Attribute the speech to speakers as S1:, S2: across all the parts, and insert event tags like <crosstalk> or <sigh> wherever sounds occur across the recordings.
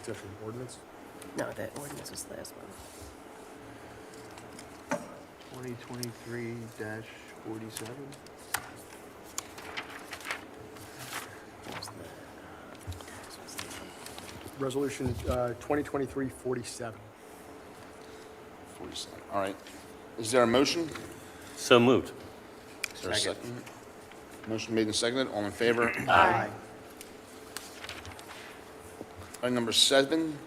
S1: Is that an ordinance?
S2: No, the ordinance was the last one.
S3: 2023-47?
S2: That was the- this was the-
S1: Resolution uh, 2023-47.
S4: 47. All right. Is there a motion?
S5: So moved.
S4: Is there a second? Motion made and seconded. All in favor? Item number seven,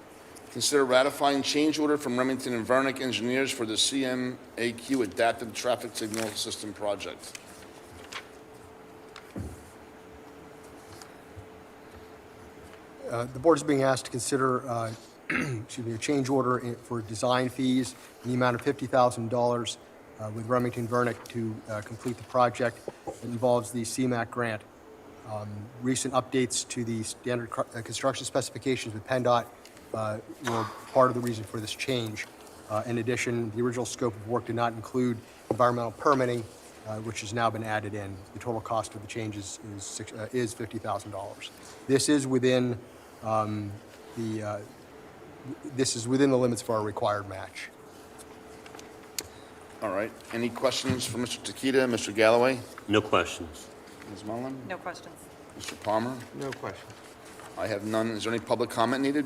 S4: consider ratifying change order from Remington and Vernick Engineers for the CMAQ Adaptive Traffic Signal System Project.
S1: Uh, The board is being asked to consider, uh, <clears throat> excuse me, a change order in- for design fees in the amount of $50,000 uh, with Remington Vernick to uh, complete the project that involves the CMAC grant. Um, Recent updates to the standard cr- uh, construction specifications with PennDOT uh, were part of the reason for this change. Uh, In addition, the original scope of work did not include environmental permitting, uh, which has now been added in. The total cost of the changes is six- uh, is $50,000. This is within um, the, uh, this is within the limits for our required match.
S4: All right. Any questions for Mr. Tequita, Mr. Galloway,
S5: No questions.
S4: Ms. Mullin,
S6: No questions.
S4: Mr. Palmer?
S3: No question.
S4: I have none. Is there any public comment needed?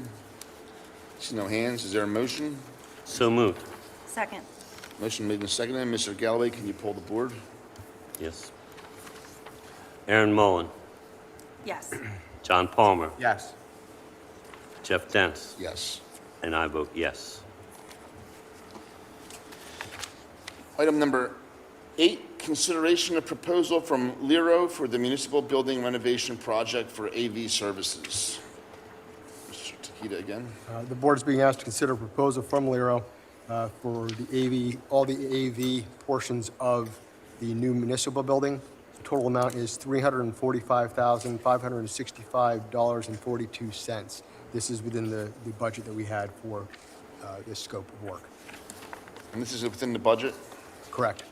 S4: See no hands. Is there a motion?
S5: So moved.
S6: Second.
S4: Motion made and seconded. Mr. Galloway, can you pull the board?
S5: Yes. Aaron Mullen,
S6: <clears throat> Yes.
S5: John Palmer,
S3: Yes.
S5: Jeff Dents,
S4: Yes.
S5: and I vote yes.
S4: Item number eight, consideration of proposal from Lero for the municipal building renovation project for AV services. Mr. Tequita again.
S1: Uh, The board is being asked to consider a proposal from Lero uh, for the AV, all the AV portions of the new municipal building. The Total amount is $345,565.42. This is within the, the budget that we had for uh, this scope of work.
S4: And this is within the budget.
S1: Correct.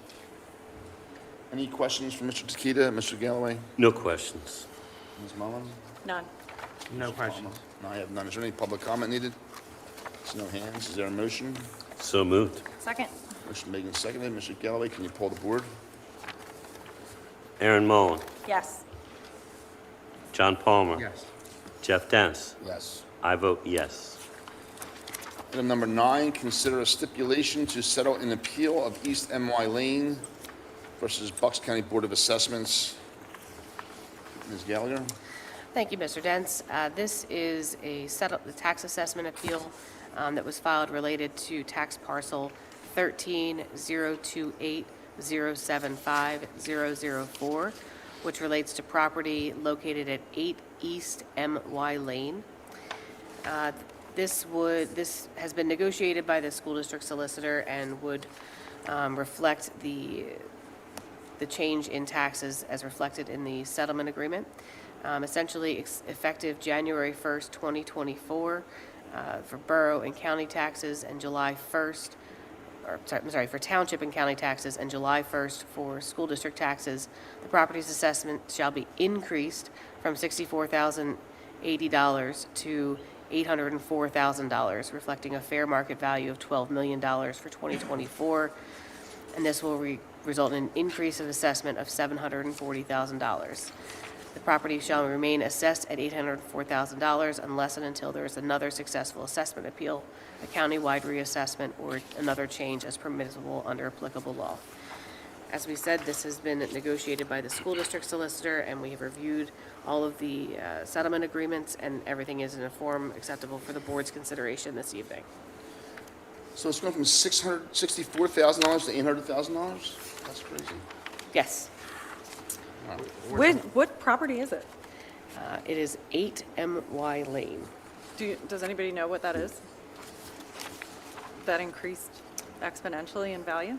S4: Any questions for Mr. Tequita, Mr. Galloway,
S5: No questions.
S4: Ms. Mullin?
S6: None.
S3: No question.
S4: No, I have none. Is there any public comment needed? See no hands. Is there a motion?
S5: So moved.
S6: Second.
S4: Motion made and seconded. Mr. Galloway, can you pull the board?
S5: Aaron Mullen,
S6: Yes.
S5: John Palmer.
S3: Yes.
S5: Jeff Dents,
S4: Yes.
S5: I vote yes.
S4: Item number nine, consider a stipulation to settle an appeal of East MY Lane versus Bucks County Board of Assessments. Ms. Gallagher?
S7: Thank you, Mr. Dents. Uh, This is a settle- the tax assessment appeal um, that was filed related to tax parcel 130280750004, which relates to property located at 8 East MY Lane. Uh, This would, this has been negotiated by the school district solicitor and would um, reflect the the change in taxes as reflected in the settlement agreement. Um, Essentially, ex- effective January 1st, 2024, uh, for borough and county taxes, and July 1st, or, sorry, I'm sorry, for township and county taxes, and July 1st for school district taxes, the property's assessment shall be increased from $64,080 to $804,000, reflecting a fair market value of $12 million for 2024 and this will re- result in an increase of assessment of $740,000. The property shall remain assessed at $804,000 unless and until there is another successful assessment appeal, a countywide reassessment, or another change as permissible under applicable law. As we said, this has been negotiated by the school district solicitor, and we have reviewed all of the uh, settlement agreements, and everything is in a form acceptable for the board's consideration this evening.
S4: So it's going from six hundred sixty-four thousand dollars to eight hundred thousand dollars? That's crazy.
S7: Yes,
S6: What, what property is it?
S7: uh, it is 8 MY Lane.
S6: Do, you- does anybody know what that is? That increased exponentially in value?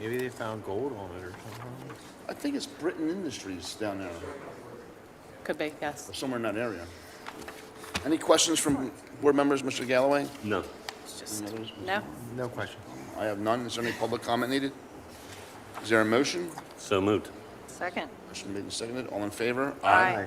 S3: Maybe they found gold on it or something.
S4: I think it's Britain Industries down there,
S7: Could be, yes.
S4: or somewhere in that area. Any questions from board members, Mr. Galloway?
S5: No.
S7: It's just,
S4: Any others?
S6: No?
S3: No question.
S4: I have none. Is there any public comment needed? Is there a motion?
S5: So moved.
S6: Second.
S4: Motion made and seconded. All in favor?
S6: Aye.